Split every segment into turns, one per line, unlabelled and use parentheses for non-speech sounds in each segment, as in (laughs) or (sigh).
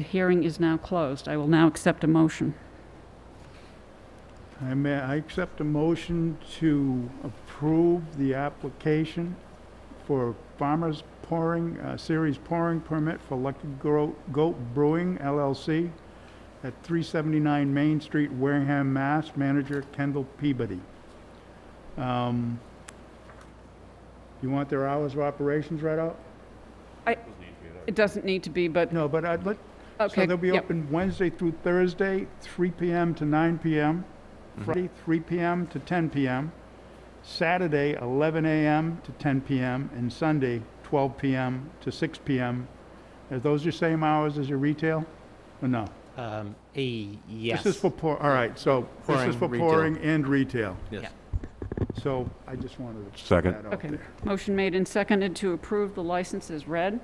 The hearing is now closed. I will now accept a motion.
I may, I accept a motion to approve the application for farmers pouring, uh, series pouring permit for Lucky Gro- Goat Brewing LLC at 379 Main Street, Wareham, Mass. Manager Kendall Peabody. Um, You want their hours of operations right out?
It doesn't need to be, but,
No, but I'd let,
okay.
So they'll be
yep.
open Wednesday through Thursday, 3 PM to 9 PM, Friday, 3 PM to 10 PM, Saturday, 11 AM to 10 PM, and Sunday, 12 PM to 6 PM. Are those your same hours as your retail? Or no?
Um, e- yes.
This is for pour, all right, so this is
Pouring,
for
retail.
pouring and retail.
Yes.
So I just wanted to put
Second.
that out
Okay.
there.
Motion made and seconded to approve the license is read.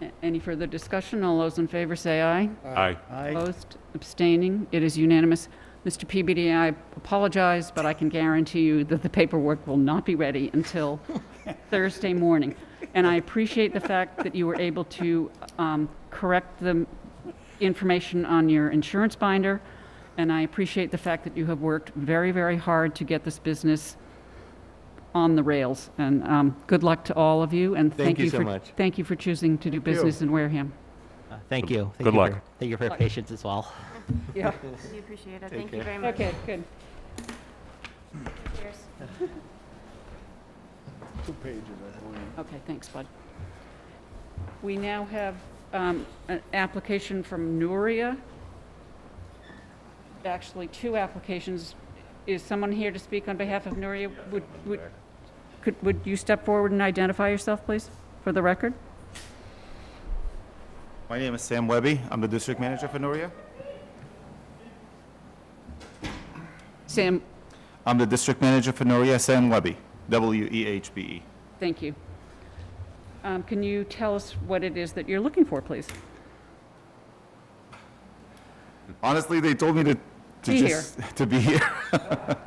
A- Any further discussion? All those in favor say aye.
Aye.
I,
Opposed, abstaining, it is unanimous. Mr. PBD, I apologize, but I can guarantee you that the paperwork will not be ready
(laughs)
until Thursday morning. And I appreciate the fact that you were able to um, correct the information on your insurance binder, and I appreciate the fact that you have worked very, very hard to get this business on the rails. And um, good luck to all of you, and
Thank
thank
you
you
so
for...
much.
Thank you for choosing to do
you.
business in Wareham.
Uh, Thank you. Thank
Good
you
luck.
for- Thank you for your patience as well.
Yeah.
We appreciate it.
Take
Thank you
care.
very much.
Okay, good.
Cheers.
two pages, I believe.
Okay, thanks, Bud. We now have um, an application from Nuria. Actually, two applications. Is someone here to speak on behalf of Nuria? Would, would, could, would you step forward and identify yourself, please, for the record?
My name is Sam Webby. I'm the district manager for Noria.
Sam,
I'm the district manager for Noria, Sam Webby, E W-E-H-B-E.
thank you. Um, Can you tell us what it is that you're looking for, please?
Honestly, they told me to, to
Be
just, (laughs) to be here.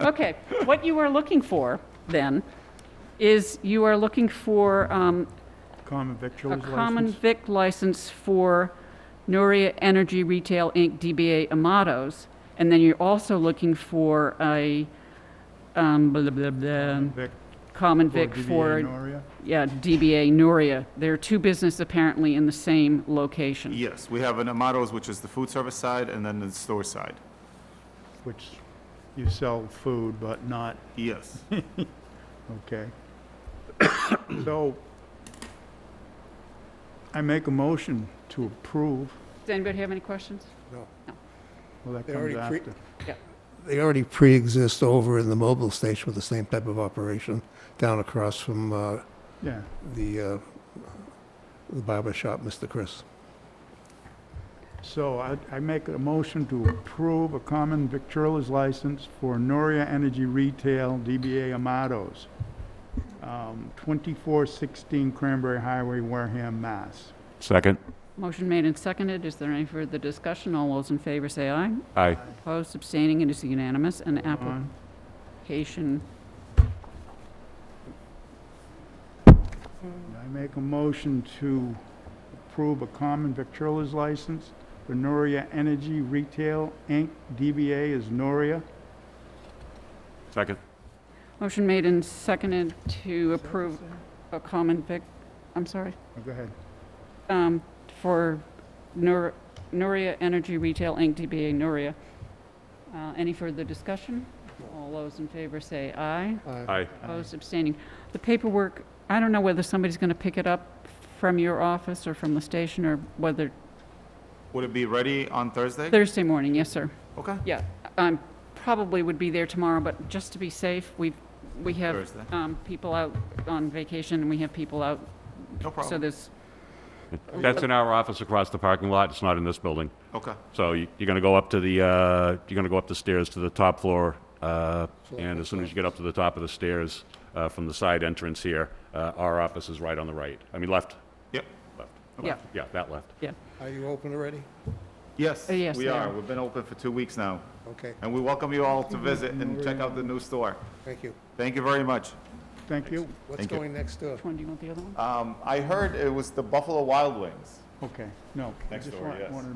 Okay, what you are looking for, then, is you are looking for um,
Common
a
victuals license.
common vic license for Nuria Energy Retail Inc., DBA Amados, and then you're also looking for a, um, blah, blah, blah,
Vic
common
for
vic
DBA
for,
Noria.
yeah, DBA Nuria. There are two businesses apparently in the same location.
Yes, we have an Amados, which is the food service side, and then the store side.
Which you sell food, but not
(laughs)
Yes.
Okay. (coughs) So, I make a motion to approve.
Does anybody have any questions?
Well, that
They
comes
already cre-
after.
They already pre-exist over in the mobile station with the same type of operation down across from uh,
Yeah,
the uh, the barber shop, Mr. Chris.
so I, I make a motion to approve a common victualer's license for Noria Energy Retail, DBA Amados, um, 2416 Cranberry Highway, Wareham, Mass.
Second.
Motion made and seconded. Is there any further discussion? All those in favor say aye.
Aye.
Opposed, abstaining, it is unanimous. An
On.
application,
I make a motion to approve a common victualer's license for Noria Energy Retail, Inc., DBA is Noria.
Second.
motion made and seconded to approve a common vic, I'm sorry.
Oh, Go ahead.
um, for Nur- Nuria Energy Retail Inc., DBA Nuria. Uh, Any further discussion? All those in favor say aye.
Aye.
Opposed, abstaining. The paperwork, I don't know whether somebody's going to pick it up from your office or from the station, or whether,
Would it be ready on Thursday?
Thursday morning, yes, sir.
Okay.
Yeah, um, probably would be there tomorrow, but just to be safe, we, we have
Thursday.
um, people out on vacation, and we have people out,
No
so
problem.
there's,
That's in our office across the parking lot. It's not in this building.
Okay.
So you- you're going to go up to the, uh, you're going to go up the stairs to the top floor, uh, and as soon as you get up to the top of the stairs uh, from the side entrance here, uh, our office is right on the right. I mean, left,
Yep.
left.
yeah,
Yeah, that left.
yeah.
Are you open already?
Yes,
Uh, yes,
we
they
are.
are.
We've been open for two weeks now,
Okay,
and we welcome you all to visit and check out the new store.
thank you.
Thank you very much.
Thank you.
What's
Thank you.
going next door?
Which one do you want, the other one?
Um, I heard it was the Buffalo Wild Wings.
Okay, no. I
Next
just
door,
wa-
yes.
wanted to